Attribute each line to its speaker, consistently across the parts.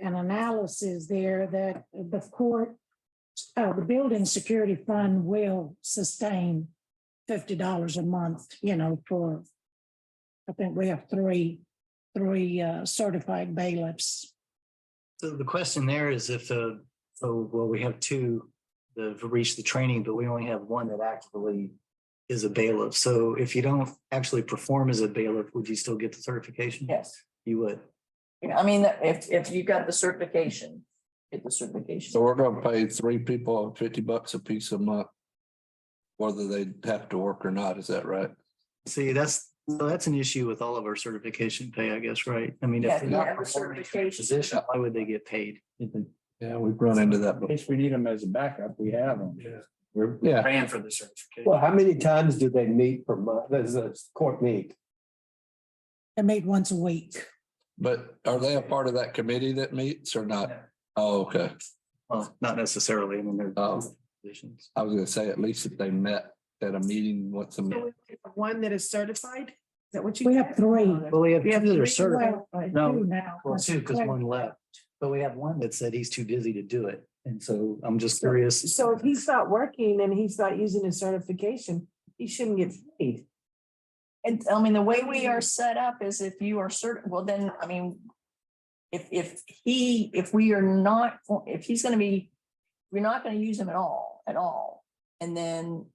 Speaker 1: an analysis there that the court, uh, the building security fund will sustain fifty dollars a month, you know, for, I think we have three, three uh, certified bailiffs.
Speaker 2: So the question there is if the, so, well, we have two that have reached the training, but we only have one that actively is a bailiff. So if you don't actually perform as a bailiff, would you still get the certification?
Speaker 3: Yes,
Speaker 2: You would.
Speaker 3: You know, I mean, if, if you got the certification, get the certification.
Speaker 4: So we're gonna pay three people fifty bucks a piece a month. Whether they have to work or not, is that right?
Speaker 2: See, that's, so that's an issue with all of our certification pay, I guess, right? I mean, if
Speaker 3: Yeah, if
Speaker 2: they're
Speaker 3: you
Speaker 2: not
Speaker 3: have the
Speaker 2: performing for the
Speaker 3: certification.
Speaker 2: position, why would they get paid?
Speaker 4: Yeah, we've run into that.
Speaker 5: In case we need them as a backup, we have them. We're
Speaker 4: Yeah.
Speaker 5: paying for the certification.
Speaker 6: Well, how many times do they meet per month? Does the court meet?
Speaker 1: They meet once a week.
Speaker 4: But are they a part of that committee that meets or not? Oh, okay.
Speaker 2: Well, not necessarily. I mean, they're
Speaker 3: um,
Speaker 4: Oh.
Speaker 2: positions.
Speaker 4: I was gonna say, at least if they met at a meeting once a
Speaker 7: So
Speaker 4: month.
Speaker 7: we have One that is certified? Is that what you? Oh,
Speaker 1: We have three.
Speaker 2: Well, we have
Speaker 7: We have
Speaker 2: two that are
Speaker 7: three
Speaker 2: certified.
Speaker 1: Well, uh,
Speaker 2: No,
Speaker 1: two now.
Speaker 2: Well, two, because one left. But we have one that said he's too busy to do it. And so I'm just curious.
Speaker 7: So if he's not working and he's not using his certification, he shouldn't get paid.
Speaker 3: And I mean, the way we are set up is if you are certain, well, then, I mean. If, if he, if we are not, if he's gonna be, we're not gonna use him at all, at all. And then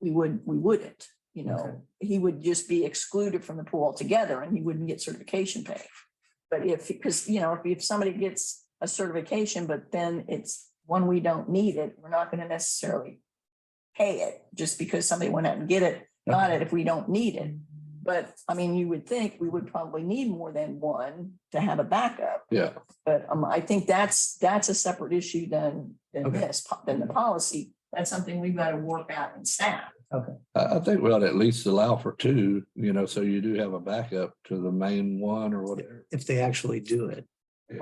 Speaker 3: we would, we wouldn't, you know, he would just be excluded from the pool altogether and he wouldn't get certification pay. But if, because, you know, if, if somebody gets a certification, but then it's one we don't need it, we're not gonna necessarily. Pay it just because somebody went out and get it, not it if we don't need it. But I mean, you would think we would probably need more than one to have a backup,
Speaker 4: Yeah,
Speaker 3: but um, I think that's, that's a separate issue than, than
Speaker 2: Okay.
Speaker 3: this, po- than the policy. That's something we've got to work out in staff.
Speaker 4: I, I think we ought to at least allow for two, you know, so you do have a backup to the main one or whatever.
Speaker 2: If they actually do it.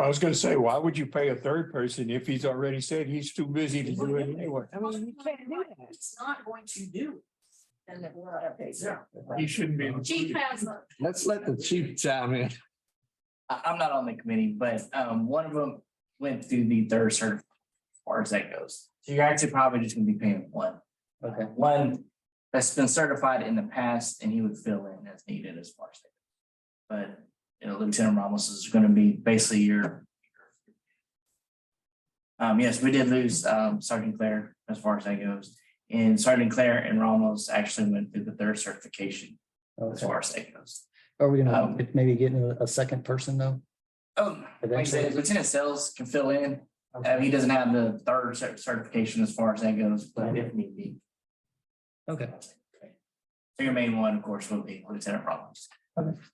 Speaker 5: I was gonna say, why would you pay a third person if he's already said he's too busy to do it anyway?
Speaker 7: I mean, you can't do that.
Speaker 3: It's not going to do. And that we're not okay, so.
Speaker 5: He shouldn't be.
Speaker 3: Chief has.
Speaker 4: Let's let the chief chime in.
Speaker 8: I, I'm not on the committee, but, um, one of them went through the third cert, as far as that goes. So you're actually probably just gonna be paying one. Okay. One that's been certified in the past and he would fill in as needed as far as that. goes. But, you know, Lieutenant Ramos is gonna be basically your. Um, yes, we did lose, um, Sergeant Claire as far as that goes. And Sergeant Claire and Ramos actually went through the third certification as far as that goes.
Speaker 9: Are we gonna
Speaker 8: Um,
Speaker 9: get- maybe getting a, a second person though?
Speaker 8: Um, like I said, Lieutenant Sales can fill in. Uh, he doesn't have the third cer- certification as far as that goes, but if need be.
Speaker 9: Okay.
Speaker 8: So Your main one, of course, would be Lieutenant Rollins.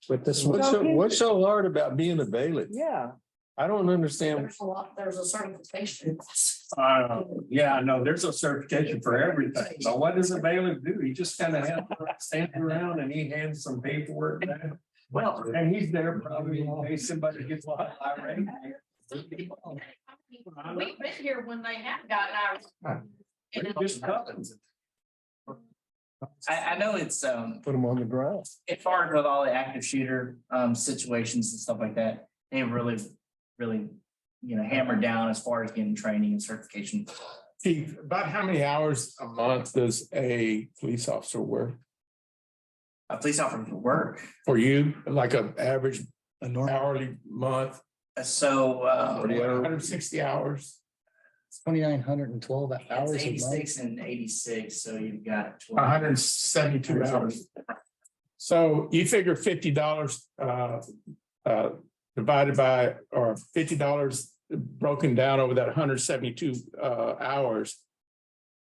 Speaker 9: With this one,
Speaker 5: What's so, what's so hard about being a bailiff?
Speaker 7: Yeah.
Speaker 5: I don't understand.
Speaker 3: There's a lot, there's a certification.
Speaker 5: Uh, yeah, no, there's a certification for everything. So what does a bailiff do? He just kind of stands around and he hands some paperwork down.
Speaker 8: Well,
Speaker 5: And he's there probably in case somebody gets irate.
Speaker 10: We've been here when they have gotten ours. And
Speaker 5: Just cousins.
Speaker 8: I, I know it's, um,
Speaker 5: Put them on the ground.
Speaker 8: it's hard with all the active shooter, um, situations and stuff like that. They really, really, you know, hammered down as far as getting training and certification.
Speaker 5: Steve, about how many hours a month does a police officer work?
Speaker 8: A police officer for work.
Speaker 5: For you, like an average
Speaker 2: A normal,
Speaker 5: hourly month,
Speaker 8: Uh, So, uh,
Speaker 5: hundred and sixty hours?
Speaker 9: twenty-nine hundred and twelve hours
Speaker 8: It's
Speaker 9: a month.
Speaker 8: eighty-six and eighty-six, so you've got. 12.
Speaker 5: hundred and seventy-two hours. So you figure fifty dollars uh uh divided by or fifty dollars broken down over that hundred seventy-two uh hours.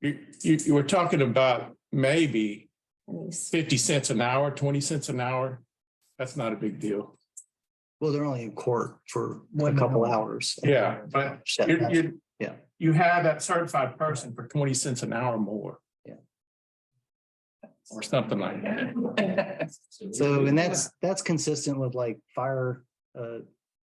Speaker 5: You you you were talking about maybe fifty cents an hour, twenty cents an hour. That's not a big deal.
Speaker 2: well, they're only in court for a couple hours.
Speaker 5: Yeah, but
Speaker 2: Shut
Speaker 5: You
Speaker 2: up.
Speaker 5: you.
Speaker 2: Yeah.
Speaker 5: You have that certified person for twenty cents an hour more.
Speaker 2: Yeah.
Speaker 5: Or something like that.
Speaker 2: So, and that's, that's consistent with like fire, uh,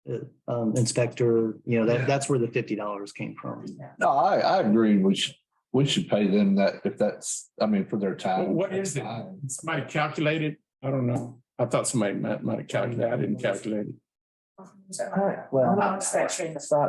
Speaker 2: uh, um, inspector, you know, that, that's where the fifty dollars came from.
Speaker 4: No, I, I agree. We should, we should pay them that if that's, I mean, for their time.
Speaker 5: What is it? Somebody calculated? I don't know. I thought somebody might, might have calculated. I didn't calculate it.
Speaker 3: Well. I'm not that train of thought.